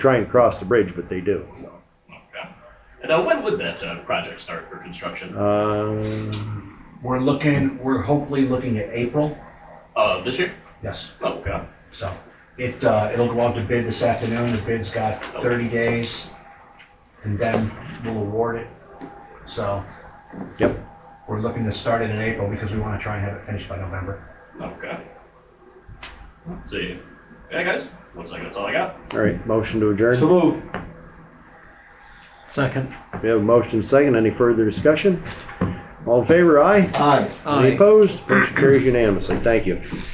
try and cross the bridge, but they do. Okay. And uh, when would that uh, project start for construction? Um, We're looking, we're hopefully looking at April, Uh, this year? yes, Oh, okay. so. It, uh, it'll go out to bid this afternoon, the bid's got thirty days, and then we'll award it. So yep. we're looking to start it in April because we wanna try and have it finished by November. Okay. Let's see. Yeah, guys. Looks like that's all I got. All right. Motion to adjourn. So move. Second. we have a motion second. Any further discussion? All in favor? Aye. Aye. Any opposed? Motion carries unanimously. Thank you.